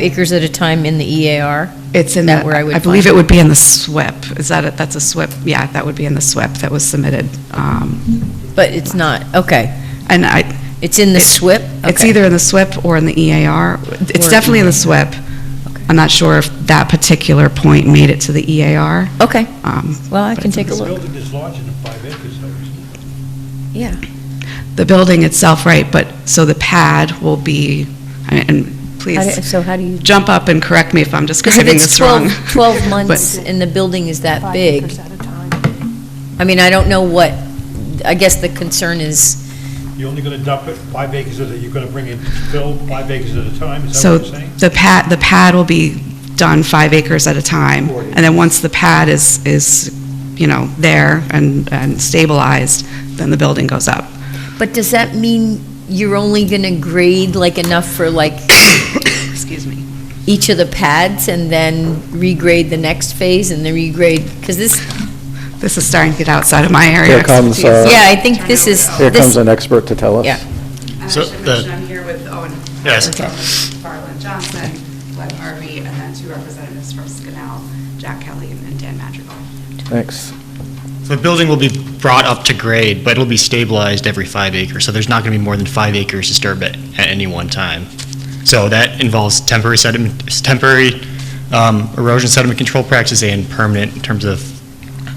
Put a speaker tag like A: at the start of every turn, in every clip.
A: acres at a time in the EAR?
B: It's in
A: That
B: that,
A: where I would
B: I believe
A: find
B: it would be in the SWIP. Is that, it? that's a SWIP, yeah, that would be in the SWIP that was submitted. Um,
A: But it's not, okay.
B: And I,
A: It's in the
B: It-
A: SWIP?
B: it's
A: Okay.
B: either in the SWIP or in the EAR. It's
A: Or
B: definitely in the
A: EAR.
B: SWIP.
A: Okay.
B: I'm not sure if that particular point made it to the EAR.
A: Okay,
B: Um,
A: well, I
B: but
A: can
B: it's in
A: take a
B: the
A: look.
C: Building is larger than five acres, though, isn't it?
A: Yeah.
B: The building itself, right, but, so the pad will be, I mean, and
A: How do-
B: please,
A: So how do you?
B: jump up and correct me if I'm
A: Because if
B: describing
A: it's
B: this wrong.
A: 12, 12
B: But-
A: months and the building is that
D: Five
A: big,
D: acres at a time.
A: I mean, I don't know what, I guess the concern is,
C: You're only going to dump it five acres at a, you're going to bring in fill five acres at a time, is that
B: So
C: what you're saying?
B: the pad, the pad will be done five acres at a time.
C: Forty.
B: And then once the pad is, is, you know, there and, and stabilized, then the building goes up.
A: but does that mean you're only going to grade like enough for like
B: Excuse me.
A: each of the pads and then regrade the next phase and then regrade? Because this,
B: This is starting to get outside of my area.
E: Here comes,
B: of
E: uh,
B: expertise.
A: yeah, I think this is.
E: Here
A: this-
E: comes an expert to tell us.
A: Yeah.
B: I
F: So
B: should
F: the-
B: mention I'm here with Owen
F: Yes.
B: Farland, Farland Johnson, Glenn Harvey, and then two representatives from Skanal, Jack Kelly and Dan Madrigal.
E: Thanks.
F: The building will be brought up to grade, but it'll be stabilized every five acres, so there's not going to be more than five acres disturbed at, at any one time. So that involves temporary sediment, temporary um, erosion sediment control practices and permanent in terms of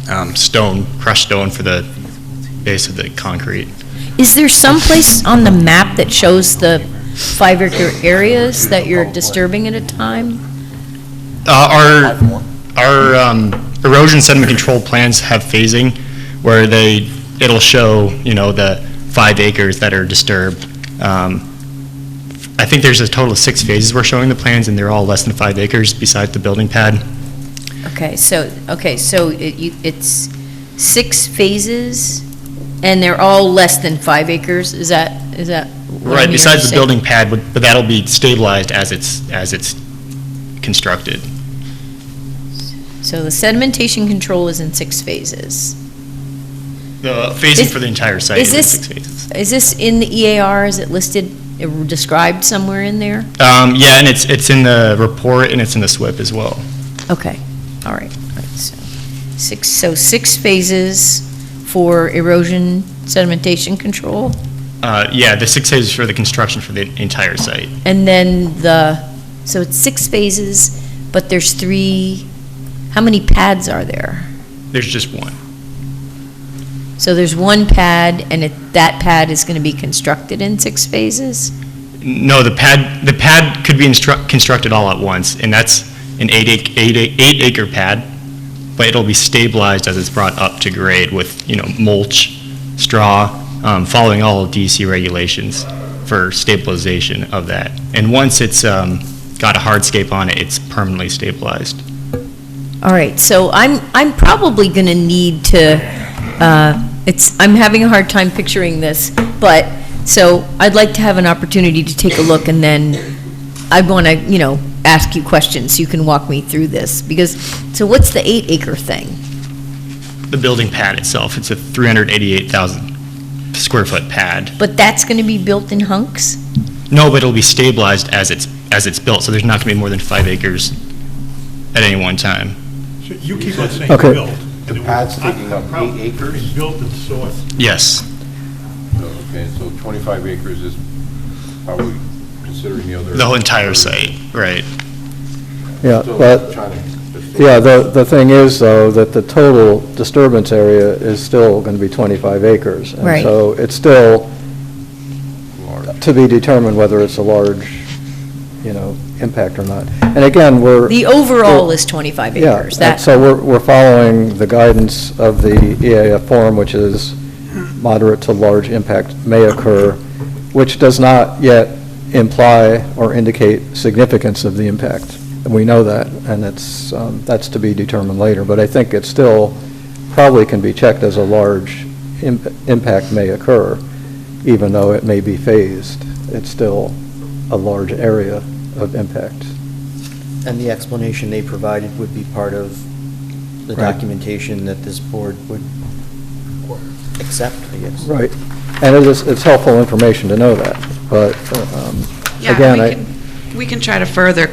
F: um, stone, crushed stone for the base of the concrete.
A: Is there some place on the map that shows the five acre areas that you're disturbing at a time?
F: Uh, Our, our um, erosion sediment control plans have phasing where they, it'll show, you know, the five acres that are disturbed. Um, I think there's a total of six phases we're showing the plans, and they're all less than five acres besides the building pad.
A: Okay, so, okay, so it, you- it's six phases, and they're all less than five acres, is that, is that? what I'm
F: Right,
A: hearing you
F: besides the
A: say?
F: building pad, but but that'll be stabilized as it's, as it's constructed.
A: So the sedimentation control is in six phases.
F: The
A: Is-
F: phasing for the entire site
A: is
F: is in
A: this-
F: six phases.
A: Is this in the EAR, is it listed, uh, described somewhere in there?
F: Um, Yeah, and it's, it's in the report, and it's in the SWIP as well.
A: Okay, all right, all right, so, six, so six phases for erosion sedimentation control,
F: Uh, Yeah, the six phases for the construction for the entire site.
A: and then the, so it's six phases, but there's three, how many pads are there?
F: There's just one.
A: So there's one pad, and it, that pad is gonna be constructed in six phases?
F: No, the pad, the pad could be instru- constructed all at once, and that's an eight ac- eight ac- eight acre pad, but it'll be stabilized as it's brought up to grade with, you know, mulch, straw, um, following all DEC regulations for stabilization of that. And once it's um, got a hardscape on it, it's permanently stabilized.
A: All right, so I'm, I'm probably going to need to, uh, it's, I'm having a hard time picturing this, but, so I'd like to have an opportunity to take a look, and then I want to, you know, ask you questions, so you can walk me through this, because, so what's the eight acre thing?
F: The building pad itself, it's a 388,000 square foot pad.
A: But that's going to be built in hunks?
F: No, but it'll be stabilized as it's, as it's built, so there's not going to be more than five acres at any one time.
C: So you keep on saying
E: Okay.
C: built.
G: The pad's taking up eight acres?
C: Built and sourced.
F: Yes.
G: Okay, so 25 acres is probably considering the other.
F: The whole entire site, right.
E: Yeah,
G: So
E: but,
G: trying to-
E: yeah, the, the thing is, though, that the total disturbance area is still going to be 25 acres.
A: Right.
E: And so it's still to be determined whether it's a large, you know, impact or not. And again, we're.
A: The overall is 25
E: Yeah,
A: acres,
E: and
A: that,
E: so we're, we're following the guidance of the E EAF form, which is moderate to large impact may occur, which does not yet imply or indicate significance of the impact. And we know that, and it's, um, that's to be determined later. But I think it still probably can be checked as a large im- impact may occur, even though it may be phased. It's still a large area of impact.
H: And the explanation they provided would be part of the
E: Right.
H: documentation that this board would accept, I guess.
E: Right, and it is, it's helpful information to know that, but, um,
B: Yeah,
E: again,
B: we
E: I...
B: can- we can try to further